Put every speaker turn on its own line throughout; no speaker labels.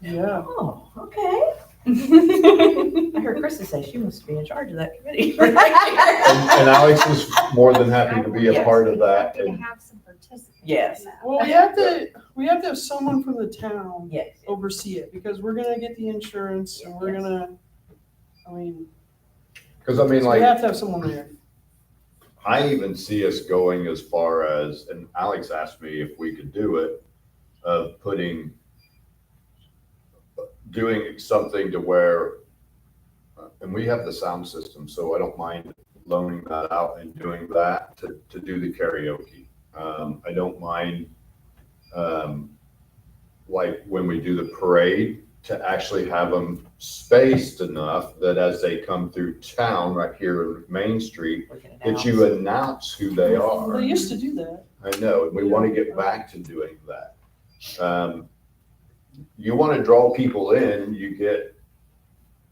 Yeah.
Oh, okay. I heard Krista say she must be in charge of that committee.
And and Alex is more than happy to be a part of that.
Happy to
And
have some participants.
Yes.
in that.
Well, we have to, we have to have someone from the town
Yes. Oh,
oversee it because we're gonna get the insurance and we're
Yes.
gonna, I mean,
Because I mean,
we
like,
have to have someone there.
I even see us going as far as, and Alex asked me if we could do it, of putting, doing something to where, and we have the sound system, so I don't mind loaning that out and doing that to, to do the karaoke. Um, I don't mind, um, like when we do the parade, to actually have them spaced enough that as they come through town right here in Main Street,
We can
that
announce.
you uh, announce who they are.
They used to do that.
I know, and we want to get back to doing that. Um, you want to draw people in, you get,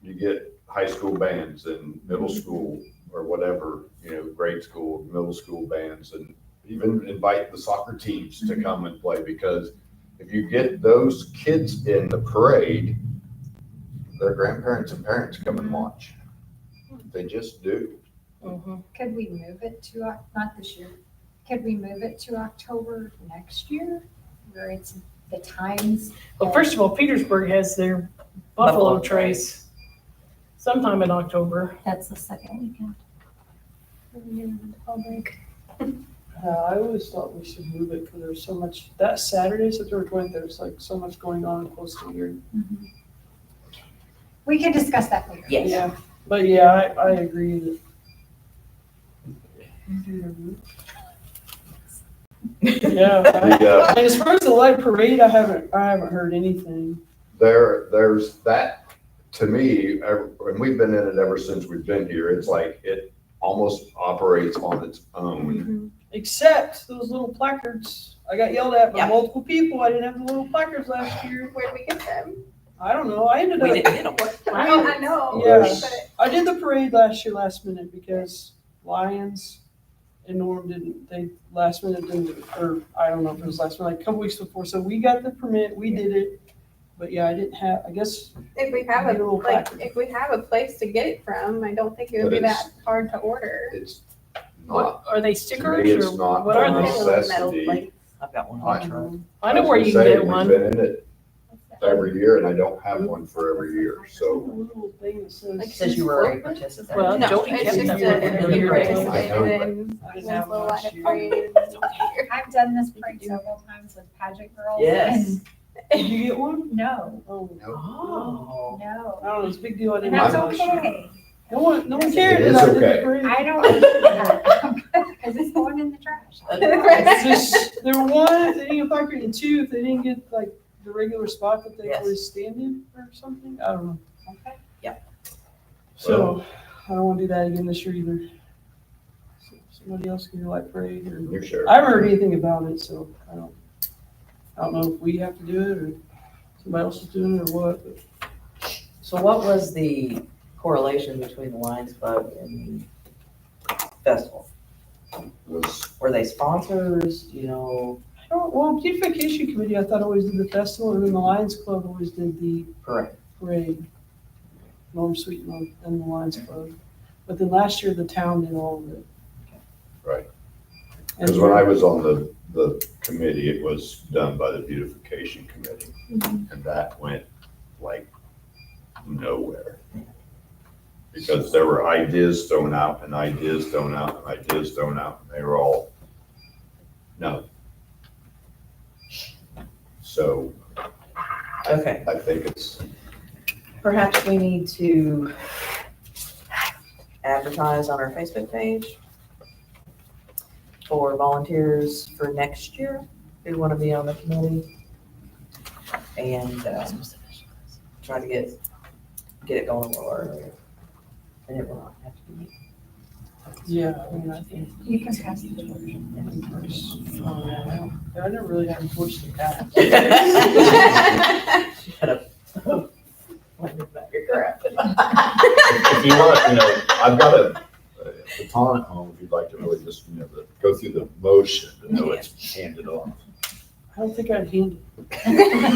you get high school bands and middle school or whatever, you know, grade school, middle school bands, and even invite the soccer teams to come and play because if you get those kids in the parade, their grandparents and parents come and watch. They just do.
Mhm.
Could we move it to, Oc- not this year, could we move it to October next year? Where it's the times,
Well, first of all, Petersburg has their
Buffalo
Buffalo Trace sometime in October.
that's the second weekend. Mm-hmm. What are we doing with the fall break?
Uh, I always thought we should move it because there's so much, that Saturday, September twentieth, there's like so much going on close to here.
We can discuss that later.
Yes.
Yeah, But yeah, I, I agree that. Yeah. I-
The, uh,
And as far as the light parade, I haven't, I haven't heard anything.
there there's that to me ev- and we've been in it ever since we've been here it's like it almost operates on its own
Except those little placards. I got yelled at by
Yeah.
multiple people. I didn't have the little placards last year.
Where'd we get them?
I don't know. I ended
We
up,
didn't get 'em.
I mean, I know.
Yeah.
but-
I did the parade last year, last minute, because Lions and Norm didn't, they last minute didn't, or I don't know if it was last minute, like a couple weeks before. So we got the permit, we did it. But yeah, I didn't have, I guess,
If we have a,
Little
like,
package.
if we have a place to get it from, I don't think it would
But
be
it's-
that hard to order.
it's not
What, are they
to me,
stickers
it's
or
not
what are
a
they?
necessity
I've got one
I-
on truck.
I know
was
where
gonna
you can
say,
get
we've
one.
been in it every year and i don't have one for every year so
little thing that says.
Like
Says you were a participant.
Well,
No,
Jody
it's
kept
just
that
a-
one
in the
you
parade.
participate
I know, but-
in
I didn't have
Winslow
one
Light
last
of
year.
Parade.
I've done this parade several times with pageant girls.
Yes.
and
Did you get one?
No,
Oh,
Oh.
I
no.
don't know, it's a big deal. I
And
didn't.
that's
have it last year.
okay.
No one, no one
It
cared.
is
that I did the
okay.
parade.
I don't need that because it's going in the trash.
It's
Right.
just, there were one, if they didn't get placard, and two, if they didn't get like the regular spot that they
Yes.
always stand in or something, I don't know.
Okay.
So, I don't wanna do that again this year either. So, Somebody else can do light parade or,
you sure
I haven't heard anything about it, so I don't, I don't know if we have to do it or somebody else is doing it or what, but
So what was the correlation between the Lions Club and the festival?
was
Were they sponsors, you know,
I don't, well, beautification committee, I thought always did the festival, and then the Lions Club always did the
correct?
parade, Norm Sweet and the- and the Lions Club. But then last year, the town did all of it.
Right.
And
because when i was on the the committee it was done by the beautification committee and that went like nowhere because there were ideas thrown out and ideas thrown out and ideas thrown out and they were all no so
Okay,
i think it's
perhaps we need to advertise on our Facebook page for volunteers for next year who want to be on the committee. And um, try to get, get it going a little earlier. And it will not have to be.
Yeah, I mean, I think.
You can pass the.
I never really had enforced it that.
Shut up. Let me back your crap.
if you want you know i've got a a baton at home if you'd like to really just you know the, go through the motion to know it's handed off
I don't think I'd handle